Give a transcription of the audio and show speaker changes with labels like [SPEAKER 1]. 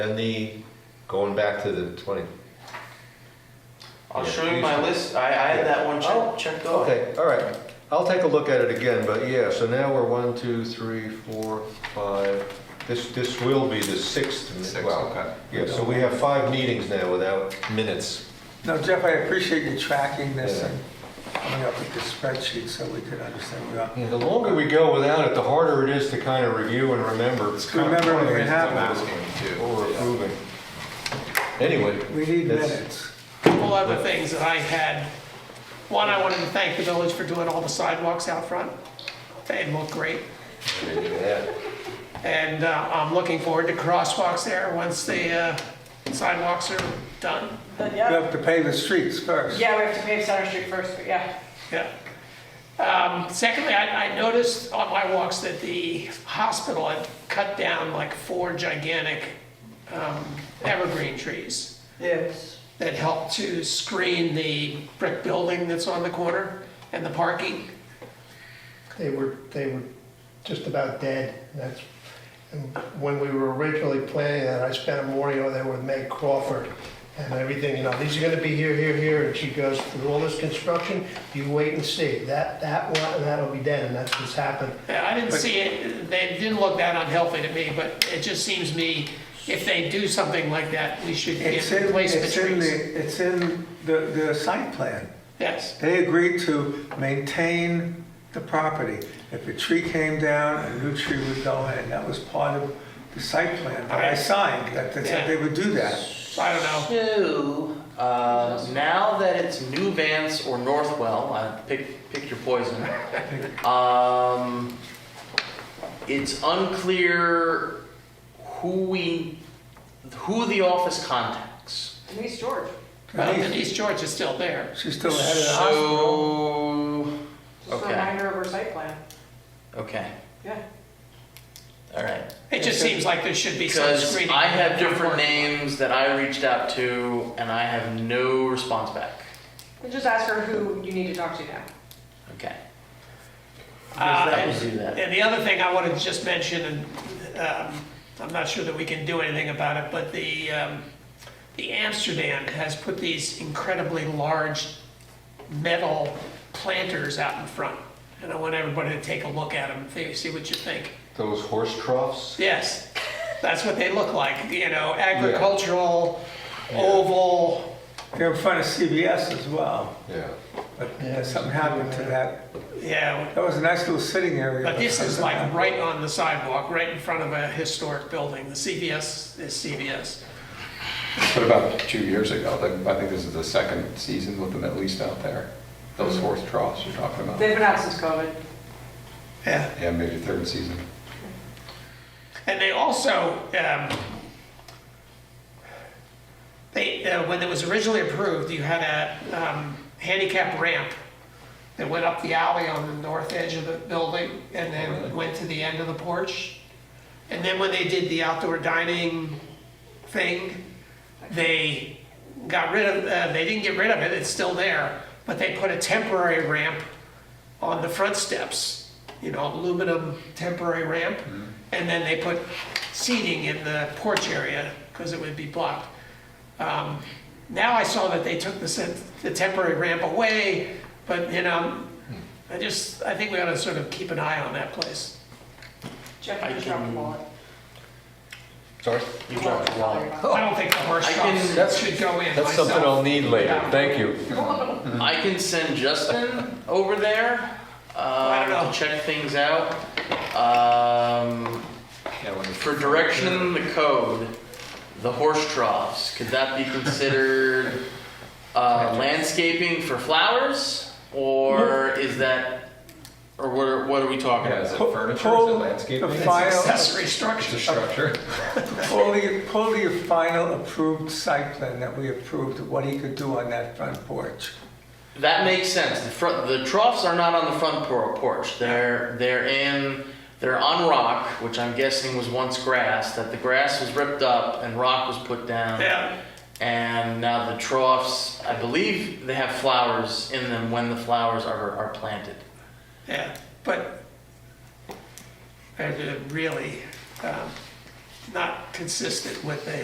[SPEAKER 1] And the, going back to the 20.
[SPEAKER 2] I'll
[SPEAKER 1] Yeah,
[SPEAKER 2] show you
[SPEAKER 1] please
[SPEAKER 2] my
[SPEAKER 1] do.
[SPEAKER 2] list. I, I had that one
[SPEAKER 1] Oh,
[SPEAKER 2] check, checked off.
[SPEAKER 1] Okay, all right. I'll take a look at it again, but yeah, so now we're one, two, three, four, five. This, this will be the sixth. mi-
[SPEAKER 3] Six,
[SPEAKER 1] well,
[SPEAKER 3] okay.
[SPEAKER 1] Yeah, so we have five meetings now without minutes.
[SPEAKER 4] No, Jeff, I appreciate you tracking this
[SPEAKER 1] Yeah.
[SPEAKER 4] and coming up with the spreadsheet so we could understand where we are.
[SPEAKER 1] The longer we go without it, the harder it is to kind of review and remember.
[SPEAKER 3] It's
[SPEAKER 4] kind of Remember when it
[SPEAKER 3] That's what I'm
[SPEAKER 4] happened.
[SPEAKER 3] asking you to do.
[SPEAKER 1] What we're approving. Anyway.
[SPEAKER 4] We need
[SPEAKER 1] that's-
[SPEAKER 4] minutes.
[SPEAKER 5] couple other things that I had. One, I wanted to thank the village for doing all the sidewalks out front. They look great.
[SPEAKER 1] Yeah.
[SPEAKER 5] And uh, I'm looking forward to crosswalks there once the uh, sidewalks are done.
[SPEAKER 6] But
[SPEAKER 4] We
[SPEAKER 6] yeah,
[SPEAKER 4] have to pave the streets first.
[SPEAKER 6] yeah, we have to pave Center Street first, but yeah.
[SPEAKER 5] Yeah. Um, Secondly, I I noticed on my walks that the hospital had cut down like four gigantic um, evergreen trees
[SPEAKER 6] Yes.
[SPEAKER 5] that help to screen the brick building that's on the corner and the parking.
[SPEAKER 7] They were, they were just about dead. That's, and when we were originally planning that, I spent a morning over there with Meg Crawford and everything, you know, these are gonna be here, here, here, and she goes, through all this construction, you wait and see. That, that one, and that'll be dead, and that's what's happened.
[SPEAKER 5] Yeah, I didn't see it, they didn't look that unhealthy to me, but it just seems to me, if they do something like that, we should get
[SPEAKER 4] It's in,
[SPEAKER 5] replacement
[SPEAKER 4] it's in
[SPEAKER 5] trees.
[SPEAKER 4] the, it's in the, the site plan.
[SPEAKER 5] Yes,
[SPEAKER 4] They agreed to maintain the property. If a tree came down, a new tree would go in, that was part of the site plan that I
[SPEAKER 5] Alright.
[SPEAKER 4] signed, that they said they would do that.
[SPEAKER 5] so I don't know,
[SPEAKER 2] So, uh, now that it's New Vance or Northwell, uh, pick, pick your poison. Um, it's unclear who we, who the office contacts.
[SPEAKER 6] Denise George.
[SPEAKER 5] well, Denise George is still there.
[SPEAKER 4] She's still ahead of the
[SPEAKER 2] So,
[SPEAKER 6] Just a
[SPEAKER 2] Okay.
[SPEAKER 6] reminder of her site plan.
[SPEAKER 2] okay,
[SPEAKER 6] Yeah.
[SPEAKER 2] all right.
[SPEAKER 5] It just seems like there should be some
[SPEAKER 2] Because
[SPEAKER 5] screening. Uh,
[SPEAKER 2] I have different names that I reached out to and I have no response back.
[SPEAKER 6] And just ask her who you need to talk to now.
[SPEAKER 2] Okay.
[SPEAKER 5] Uh,
[SPEAKER 2] That
[SPEAKER 5] and-
[SPEAKER 2] would do that.
[SPEAKER 5] And the other thing I wanted to just mention, and um, I'm not sure that we can do anything about it, but the, um, the Amsterdam has put these incredibly large metal planters out in front. And I want everybody to take a look at them, see- see what you think.
[SPEAKER 1] Those horse troughs?
[SPEAKER 5] Yes, that's what they look like, you know, agricultural, oval.
[SPEAKER 4] They're in front of CBS as well,
[SPEAKER 1] Yeah.
[SPEAKER 4] but uh, something happened to that.
[SPEAKER 5] Yeah,
[SPEAKER 4] That was a nice little sitting area.
[SPEAKER 5] but this is like right on the sidewalk, right in front of a historic building. The CVS is CVS.
[SPEAKER 3] What about two years ago? Like, I think this is the second season with them at least out there. Those horse troughs you're talking about.
[SPEAKER 6] They've been out since COVID.
[SPEAKER 5] Yeah.
[SPEAKER 3] Yeah, maybe third season.
[SPEAKER 5] And they also, um, they, uh, when it was originally approved, you had a, um, handicap ramp that went up the alley on the north edge of the building and then went to the end of the porch. And then when they did the outdoor dining thing, they got rid of, uh, they didn't get rid of it, it's still there, but they put a temporary ramp on the front steps, you know, aluminum temporary ramp. And then they put seating in the porch area because it would be blocked. Um, Now I saw that they took the, sen- the temporary ramp away, but you know,
[SPEAKER 1] Hmm.
[SPEAKER 5] I just, I think we ought to sort of keep an eye on that place.
[SPEAKER 6] Jeff,
[SPEAKER 2] I
[SPEAKER 6] you just dropped the
[SPEAKER 2] can-
[SPEAKER 6] wallet.
[SPEAKER 1] Sorry?
[SPEAKER 2] You dropped the line.
[SPEAKER 5] I don't think the horse
[SPEAKER 2] I can-
[SPEAKER 5] shops should go in
[SPEAKER 1] Oh, That's something
[SPEAKER 5] myself.
[SPEAKER 1] I'll need later. Thank you.
[SPEAKER 2] I can send Justin over there
[SPEAKER 5] I don't
[SPEAKER 2] uh,
[SPEAKER 5] know.
[SPEAKER 2] to check things out. Um, For direction in the code, the horse troughs, could that be considered uh, landscaping for flowers? Or is that, or what are, what are we talking
[SPEAKER 3] Yeah,
[SPEAKER 2] about?
[SPEAKER 3] is it
[SPEAKER 4] Pull-
[SPEAKER 3] furniture, is it
[SPEAKER 4] pull
[SPEAKER 3] landscaping?
[SPEAKER 4] the
[SPEAKER 3] It's
[SPEAKER 4] file-
[SPEAKER 5] Accessory
[SPEAKER 3] It's a
[SPEAKER 5] structure.
[SPEAKER 3] structure.
[SPEAKER 4] Pull the, pull the final approved site plan that we approved, of what he could do on that front porch.
[SPEAKER 2] That makes sense. The front, the troughs are not on the front por- porch. They're they're in they're on rock, which I'm guessing was once grass. That the grass was ripped up and rock was put down.
[SPEAKER 5] Yeah,
[SPEAKER 2] And now the troughs, I believe they have flowers in them when the flowers are are planted.
[SPEAKER 5] yeah, but they're really um, not consistent with the